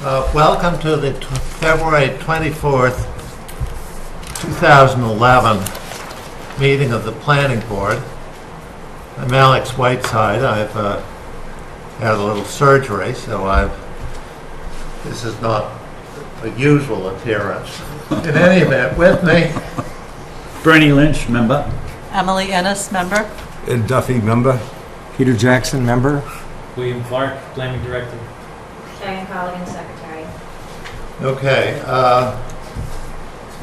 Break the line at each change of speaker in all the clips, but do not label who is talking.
Uh, Welcome to the tw- February 24th, 2011 meeting of the Planning Board. I'm Alex Whiteside. I've uh, had a little surgery, so I've, this is not a usual appearance. In any event, with me,
Bernie Lynch, member.
Emily Ennis, member.
Ed Duffy, member. Peter Jackson, member.
William Clark, planning director.
Diane Colligan, secretary.
Okay, uh,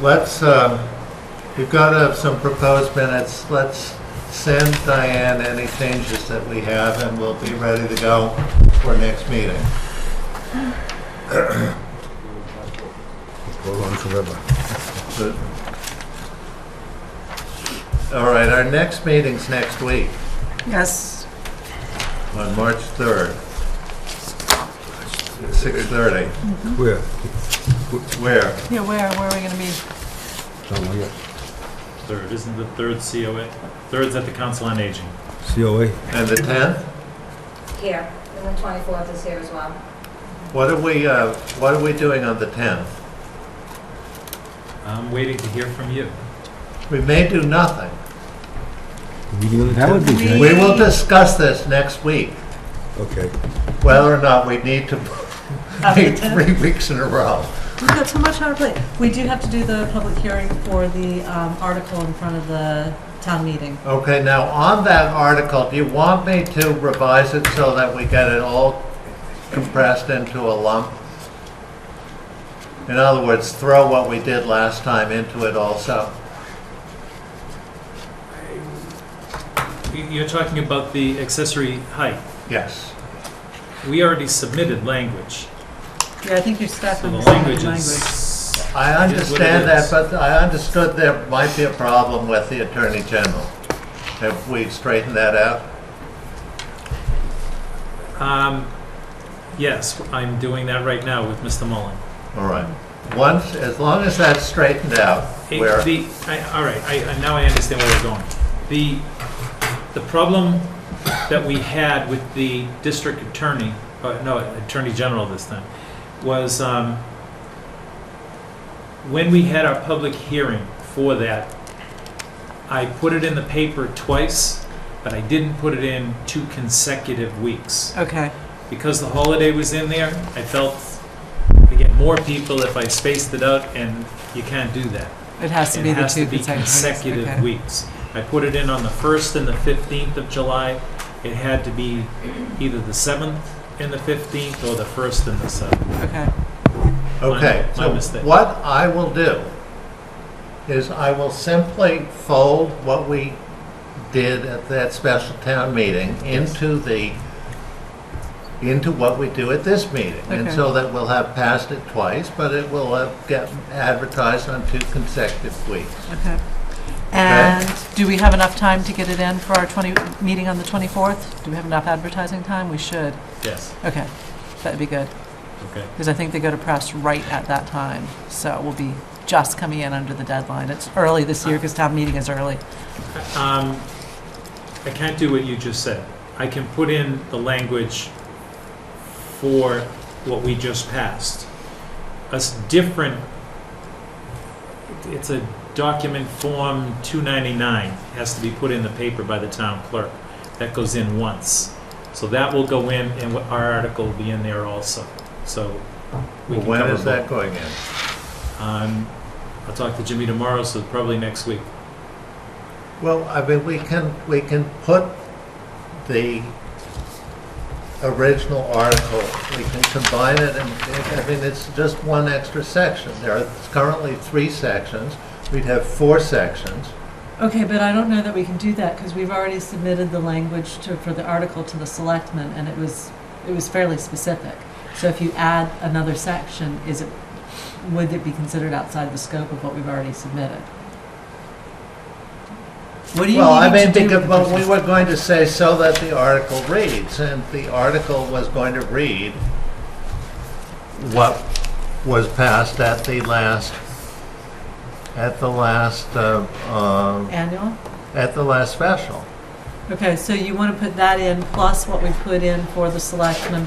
let's, uh, we've got uh, some proposed minutes. Let's send Diane any changes that we have, and we'll be ready to go for next meeting.
Hold on forever.
But- All right, our next meeting's next week,
Yes.
on March 3rd, at 6:30.
Where?
Where?
Yeah, where, where are we gonna be?
Don't know yet.
Third, isn't the third COA? Third's at the Council on Aging.
COA.
And the 10th?
Here, and the 24th is here as well.
What are we, uh, what are we doing on the 10th?
I'm waiting to hear from you.
We may do nothing.
Meeting on the That would be
We-
We will discuss this next week,
Okay.
whether or not we need to
Have the
meet
10th.
three weeks in a row.
We've got so much on our plate. We do have to do the public hearing for the um, article in front of the town meeting.
Okay, now, on that article, do you want me to revise it so that we get it all compressed into a lump? In other words, throw what we did last time into it also?
You- You're talking about the accessory height.
Yes.
We already submitted language,
Yeah, I think you're stuck
so
on
the
the
language
language.
is.
I
It is what it
understand that,
is.
but I understood there might be a problem with the Attorney General. Have we straightened that out?
Um, Yes, I'm doing that right now with Mr. Mullen.
All right. Once, as long as that's straightened out,
Hey,
where,
The, I, all right, I, I- now I understand where we're going. The, the problem that we had with the district attorney, uh, no, attorney general this time, was, um, when we had our public hearing for that, I put it in the paper twice, but I didn't put it in two consecutive weeks.
Okay,
Because the holiday was in there, I felt to get more people if I spaced it out, and you can't do that.
it has to
It
be the
has to
two
be consecutive
consecutive
weeks.
weeks.
I put it in on the 1st and the 15th of July. It had to be either the 7th and the 15th or the 1st and the 7th.
Okay, okay.
okay.
my
So
mistake.
what I will do is I will simply fold what we did at that special town meeting into the, into what we do at this meeting. And
Okay.
so that we'll have passed it twice, but it will uh, get advertised on two consecutive weeks.
And do we have enough time to get it in for our 20, meeting on the 24th? Do we have enough advertising time? We should.
Yes,
Okay, that'd be good,
okay.
because I think they go to press right at that time. So we'll be just coming in under the deadline. It's early this year, because town meeting is early.
Um, I can't do what you just said. I can put in the language for what we just passed. A s- different, it's a document form 299, has to be put in the paper by the town clerk. That goes in once. So that will go in, and what- our article will be in there also, so. we can
When
cover
is that
both.
going in?
Um, I'll talk to Jimmy tomorrow, so probably next week.
Well, I mean, we can, we can put the original article, we can combine it, and, I mean, it's just one extra section. There are currently three sections, we'd have four sections.
Okay, but I don't know that we can do that, because we've already submitted the language to, for the article to the selectmen, and it was, it was fairly specific. So if you add another section, is it, would it be considered outside the scope of what we've already submitted? What do you
Well, I mean,
need to do
because,
with the
well, we
business?
were going to say so that the article reads, and the article was going to read what was passed at the last, at the last, uh, uh,
Annual?
at the last special.
Okay, so you want to put that in, plus what we put in for the selectmen